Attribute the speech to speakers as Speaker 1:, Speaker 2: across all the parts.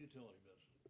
Speaker 1: utility business.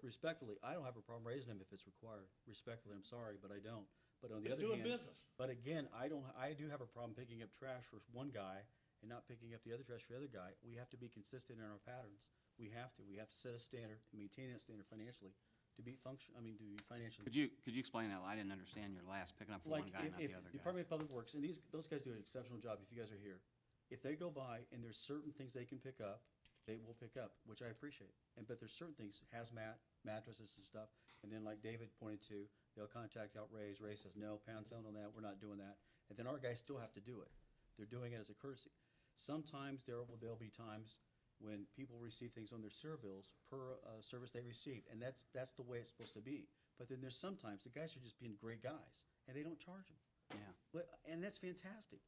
Speaker 2: Respectfully, I don't have a problem raising them if it's required. Respectfully, I'm sorry, but I don't. But on the
Speaker 1: It's
Speaker 2: other
Speaker 1: doing
Speaker 2: hand-
Speaker 1: business.
Speaker 2: But again, I don't, I do have a problem picking up trash for one guy and not picking up the other trash for the other guy. We have to be consistent in our patterns. We have to, we have to set a standard and maintain that standard financially to be function, I mean, to be financially.
Speaker 3: Could you, could you explain that? I didn't understand your last, picking up from one
Speaker 2: Like,
Speaker 3: guy,
Speaker 2: if,
Speaker 3: not
Speaker 2: if
Speaker 3: the other guy.
Speaker 2: Department of Public Works, and these, those guys do an exceptional job if you guys are here. If they go by and there's certain things they can pick up, they will pick up, which I appreciate. And, but there's certain things, hazmat, mattresses and stuff, and then like David pointed to, they'll contact out Ray's, Ray says, no, pound sound on that, we're not doing that. And then our guys still have to do it. They're doing it as a courtesy. Sometimes there will, there'll be times when people receive things on their serve bills per uh, service they received, and that's, that's the way it's supposed to be. But then there's sometimes, the guys are just being great guys, and they don't charge them.
Speaker 3: Yeah.
Speaker 2: But, and that's fantastic.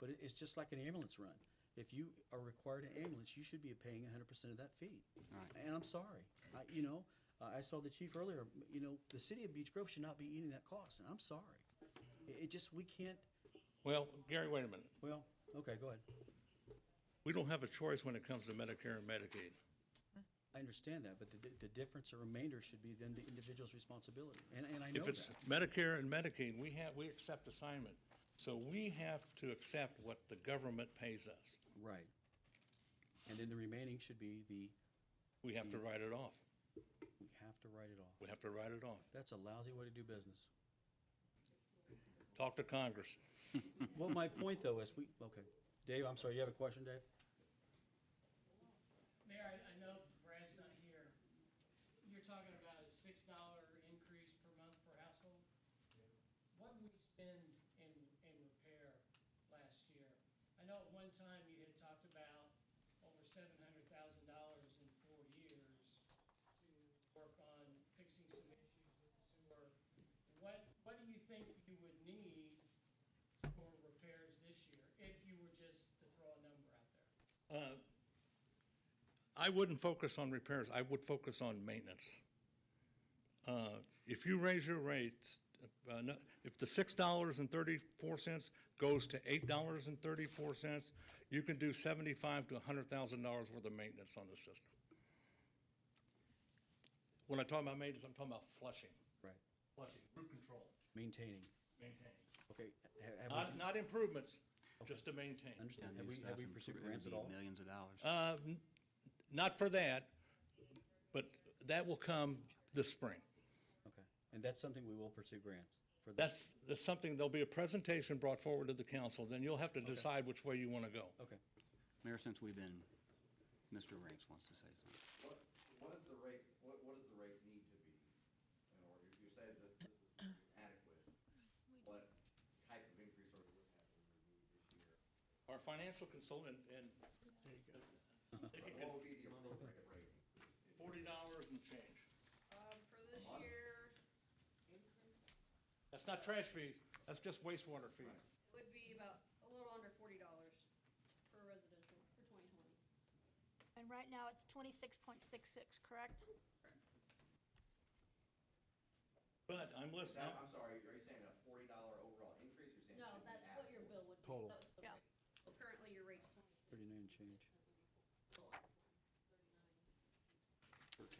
Speaker 2: But it, it's just like an ambulance run. If you are required an ambulance, you should be paying hundred percent of that fee.
Speaker 3: Right.
Speaker 2: And I'm sorry, I, you know, uh, I saw the chief earlier, you know, the city of Beech Grove should not be eating that cost, and I'm sorry. It, it just, we can't,
Speaker 1: Well, Gary, wait a minute.
Speaker 2: well, okay, go ahead.
Speaker 1: We don't have a choice when it comes to Medicare and Medicaid.
Speaker 2: I understand that, but the, the difference or remainder should be then the individual's responsibility, and, and I know
Speaker 1: If it's
Speaker 2: that.
Speaker 1: Medicare and Medicaid, we have, we accept assignment. So we have to accept what the government pays us.
Speaker 2: Right. And then the remaining should be the,
Speaker 1: We have to
Speaker 2: Mm.
Speaker 1: write it off.
Speaker 2: we have to write it off.
Speaker 1: We have to write it off.
Speaker 2: That's a lousy way to do business.
Speaker 1: Talk to Congress.
Speaker 2: Well, my point though is we, okay. Dave, I'm sorry, you have a question, Dave?
Speaker 4: Mayor, I, I know Brad's not here. You're talking about a six dollar increase per month per household? What did we spend in, in repair last year? I know at one time you had talked about over seven hundred thousand dollars in four years to work on fixing some issues with the sewer. What, what do you think you would need for repairs this year, if you were just to throw a number out
Speaker 1: Uh,
Speaker 4: there?
Speaker 1: I wouldn't focus on repairs, I would focus on maintenance. Uh, If you raise your rates, uh, no- if the six dollars and thirty-four cents goes to eight dollars and thirty-four cents, you can do seventy-five to a hundred thousand dollars worth of maintenance on the system. When I talk about maintenance, I'm talking about flushing.
Speaker 2: Right.
Speaker 1: Flushing, root control,
Speaker 2: Maintaining.
Speaker 1: maintaining.
Speaker 2: Okay. ha- have we-
Speaker 1: Not, not improvements, just to maintain.
Speaker 2: Understand,
Speaker 3: Down
Speaker 2: have
Speaker 3: new
Speaker 2: we,
Speaker 3: stuff
Speaker 2: have we
Speaker 3: and
Speaker 2: pursued
Speaker 3: we're gonna
Speaker 2: grants at
Speaker 3: need
Speaker 2: all?
Speaker 3: Millions of dollars.
Speaker 1: Uh, n- Not for that, but that will come this spring.
Speaker 2: Okay, and that's something we will pursue grants for. the-
Speaker 1: That's, that's something, there'll be a presentation brought forward to the council, then you'll have to decide which way you want to go.
Speaker 2: Okay,
Speaker 3: Mayor, since we've been, Mr. Ranks wants to say something.
Speaker 5: What, what is the rate, what, what does the rate need to be? In order, you say that this is adequate, what type of increase are we looking at we would need this year?
Speaker 1: Our financial consultant and
Speaker 5: What would be the appropriate rate increase? if-
Speaker 1: forty dollars and change.
Speaker 6: Um, for this
Speaker 5: month?
Speaker 6: year,
Speaker 1: That's not trash fees, that's just wastewater fees.
Speaker 6: it would be about a little under forty dollars for residential for twenty twenty.
Speaker 7: And right now, it's twenty-six point six six, correct?
Speaker 1: But I'm
Speaker 5: Is
Speaker 1: listening,
Speaker 5: that- I'm sorry, are you saying a forty dollar overall increase, or you're saying it
Speaker 6: No,
Speaker 5: should be
Speaker 6: that's what your
Speaker 5: absolute?
Speaker 6: bill
Speaker 2: Total.
Speaker 6: would be. That was the
Speaker 7: Yeah.
Speaker 6: rate. So Currently, your rate's twenty-six.
Speaker 2: 39 change.
Speaker 3: Thirteen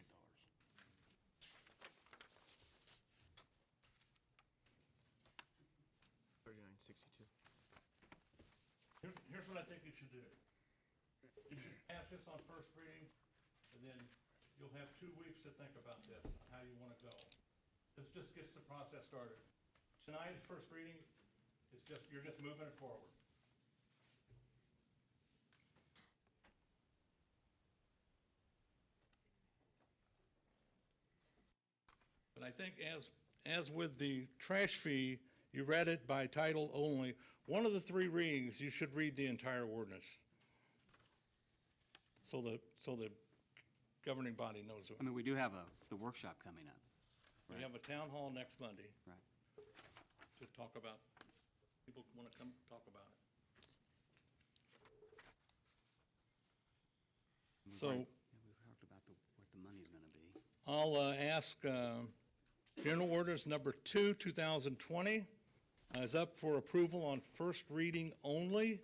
Speaker 3: dollars.
Speaker 8: Thirty-nine sixty-two.
Speaker 1: here's, here's what I think you should do. You should pass this on first reading, and then you'll have two weeks to think about this, how you want to go. This just gets the process started. Tonight's first reading is just, you're just moving it forward. But I think as, as with the trash fee, you read it by title only. One of the three readings, you should read the entire ordinance. So the, so the governing body knows.
Speaker 3: I mean, we do have a, the workshop coming up,
Speaker 1: We have a town hall next Monday
Speaker 3: right?
Speaker 1: to talk about, people want to come talk about it.
Speaker 3: We've
Speaker 1: So
Speaker 3: already- yeah, We've talked about the, what the money's gonna be.
Speaker 1: I'll uh, ask, uh, General Orders Number 2, 2020 uh, is up for approval on first reading only.